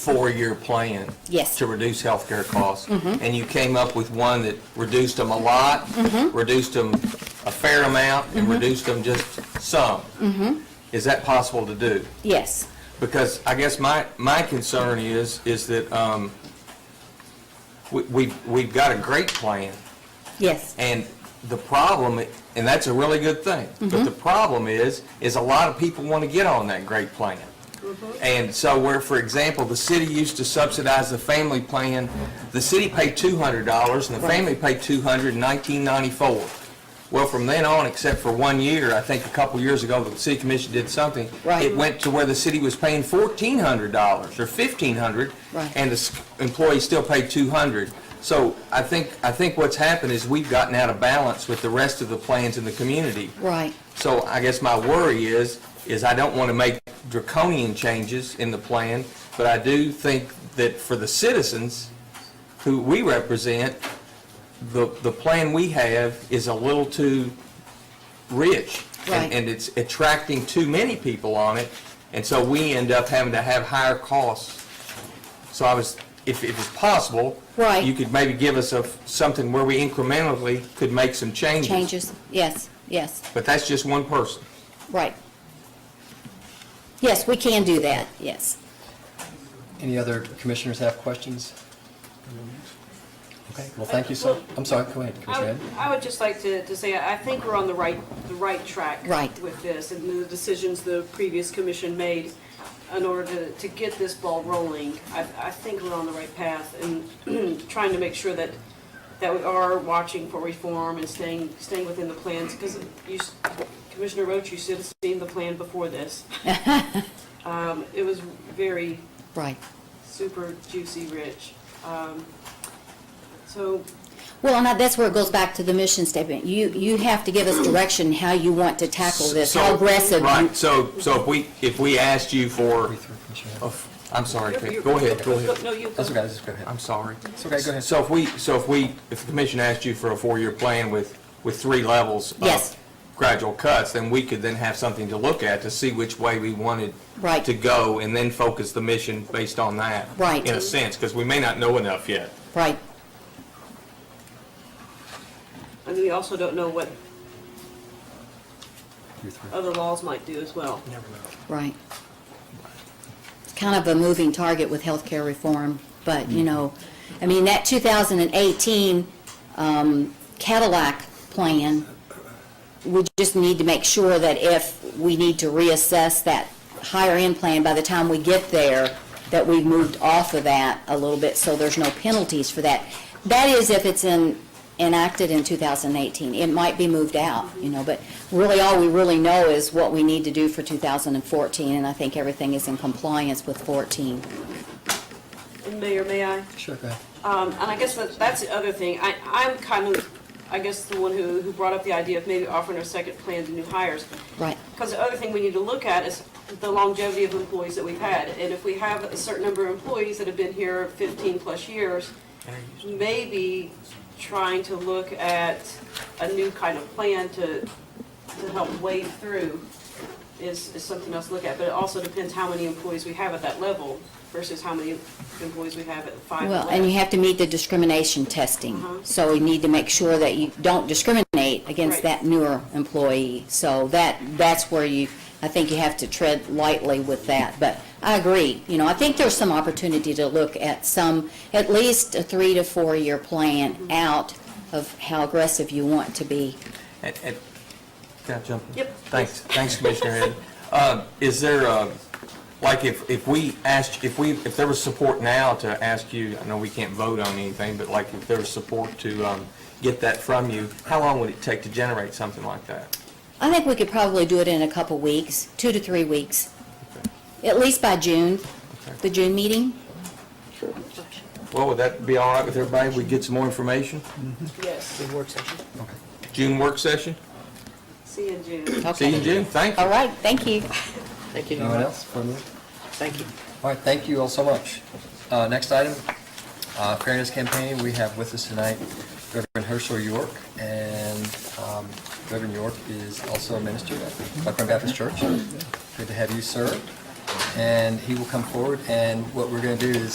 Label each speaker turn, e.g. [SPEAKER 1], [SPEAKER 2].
[SPEAKER 1] four-year plan.
[SPEAKER 2] Yes.
[SPEAKER 1] To reduce healthcare costs. And you came up with one that reduced them a lot, reduced them a fair amount, and reduced them just some. Is that possible to do?
[SPEAKER 2] Yes,
[SPEAKER 1] Because I guess my, my concern is, is that um, we- we've, we've got a great plan,
[SPEAKER 2] yes,
[SPEAKER 1] and the problem, and that's a really good thing, but the problem is, is a lot of people want to get on that great plan.
[SPEAKER 2] Mm-hmm.
[SPEAKER 1] And so where, for example, the city used to subsidize the family plan, the city paid two hundred dollars and the
[SPEAKER 2] Right.
[SPEAKER 1] family paid two hundred in nineteen ninety-four. Well, from then on, except for one year, I think a couple years ago, the city commission did something.
[SPEAKER 2] Right.
[SPEAKER 1] It went to where the city was paying fourteen hundred dollars or fifteen hundred.
[SPEAKER 2] Right.
[SPEAKER 1] And the s- employee still paid two hundred. So I think, I think what's happened is we've gotten out of balance with the rest of the plans in the community.
[SPEAKER 2] right,
[SPEAKER 1] So I guess my worry is, is I don't want to make draconian changes in the plan, but I do think that for the citizens who we represent, the, the plan we have is a little too rich. and-
[SPEAKER 2] Right.
[SPEAKER 1] And it's attracting too many people on it, and so we end up having to have higher costs. So I was, if if it's possible.
[SPEAKER 2] Right.
[SPEAKER 1] You could maybe give us a, something where we incrementally could make some changes.
[SPEAKER 2] changes, yes, yes,
[SPEAKER 1] But that's just one person.
[SPEAKER 2] right. Yes, we can do that, yes.
[SPEAKER 3] Any other commissioners have questions? Okay, well, thank you so, I'm sorry, go ahead,
[SPEAKER 4] I
[SPEAKER 3] Commissioner
[SPEAKER 4] would-
[SPEAKER 3] Head.
[SPEAKER 4] I would just like to, to say, I think we're on the right, the right track.
[SPEAKER 2] Right.
[SPEAKER 4] With this, and the decisions the previous commission made in order to, to get this ball rolling. I, I think we're on the right path and trying to make sure that, that we are watching for reform and staying, staying within the plans. Because you, s- Commissioner Roach, you should have seen the plan before this. Um, It was very
[SPEAKER 2] Right.
[SPEAKER 4] super juicy, rich. Um, So
[SPEAKER 2] Well, and that- that's where it goes back to the mission statement. You, you have to give us direction how you want to tackle this, how
[SPEAKER 1] So-
[SPEAKER 2] aggressive. you-
[SPEAKER 1] Right, so, so if we, if we asked you for,
[SPEAKER 3] Breathe through, Commissioner Head.
[SPEAKER 1] oh, I'm sorry,
[SPEAKER 4] You're-
[SPEAKER 1] Pam.
[SPEAKER 4] you're-
[SPEAKER 1] go ahead, go
[SPEAKER 4] Go-
[SPEAKER 1] ahead.
[SPEAKER 4] No, you go.
[SPEAKER 3] That's okay, just go ahead.
[SPEAKER 1] I'm sorry.
[SPEAKER 3] It's okay, go ahead.
[SPEAKER 1] So if we, so if we, if the commission asked you for a four-year plan with, with three levels
[SPEAKER 2] Yes.
[SPEAKER 1] of gradual cuts, then we could then have something to look at to see which way we wanted
[SPEAKER 2] Right.
[SPEAKER 1] to go, and then focus the mission based on that.
[SPEAKER 2] Right.
[SPEAKER 1] In a sense, because we may not know enough yet.
[SPEAKER 2] Right,
[SPEAKER 4] And we also don't know what
[SPEAKER 3] Breathe through.
[SPEAKER 4] other laws might do as well.
[SPEAKER 2] right. It's kind of a moving target with healthcare reform, but, you know, I mean, that 2018 um, Cadillac plan we just need to make sure that if we need to reassess that higher-end plan, by the time we get there, that we've moved off of that a little bit, so there's no penalties for that. That is if it's in, enacted in 2018. It might be moved out, you know, but really, all we really know is what we need to do for 2014, and I think everything is in compliance with 14.
[SPEAKER 4] And Mayor, may I?
[SPEAKER 3] Sure, go ahead.
[SPEAKER 4] Um, and I guess that, that's the other thing. I, I'm kind of, I guess, the one who, who brought up the idea of maybe offering a second plan to new hires.
[SPEAKER 2] Right,
[SPEAKER 4] Because the other thing we need to look at is the longevity of employees that we've had. And if we have a certain number of employees that have been here fifteen plus years, maybe trying to look at a new kind of plan to, to help wade through is, is something else to look at. But it also depends how many employees we have at that level versus how many employees we have at five
[SPEAKER 2] well,
[SPEAKER 4] levels.
[SPEAKER 2] and you have to meet the discrimination testing, so we need to make sure that you don't discriminate against
[SPEAKER 4] Right.
[SPEAKER 2] that newer employee. So that, that's where you, I think you have to tread lightly with that. But I agree, you know, I think there's some opportunity to look at some, at least a three to four-year plan out of how aggressive you want to be.
[SPEAKER 1] And- and- Can I jump in?
[SPEAKER 4] Yep.
[SPEAKER 1] Thanks, thanks, Commissioner Head. Uh, Is there, uh, like, if, if we asked, if we, if there was support now to ask you, I know we can't vote on anything, but like, if there was support to um, get that from you, how long would it take to generate something like that?
[SPEAKER 2] I think we could probably do it in a couple weeks, two to three weeks, at least by June, the June meeting.
[SPEAKER 1] Well, would that be all right with everybody, if we get some more information?
[SPEAKER 4] Yes,
[SPEAKER 1] June work session?
[SPEAKER 4] see you in June.
[SPEAKER 1] See you in June, thank you.
[SPEAKER 2] All right, thank you.
[SPEAKER 5] Thank you.
[SPEAKER 3] Anyone else for me?
[SPEAKER 5] Thank you.
[SPEAKER 3] All right, thank you all so much. Uh, Next item, uh, Fairness Campaign, we have with us tonight Reverend Herschel York, and um, Reverend York is also a minister at Buckland Baptist Church. Good to have you, sir. and he will come forward, and what we're going to do is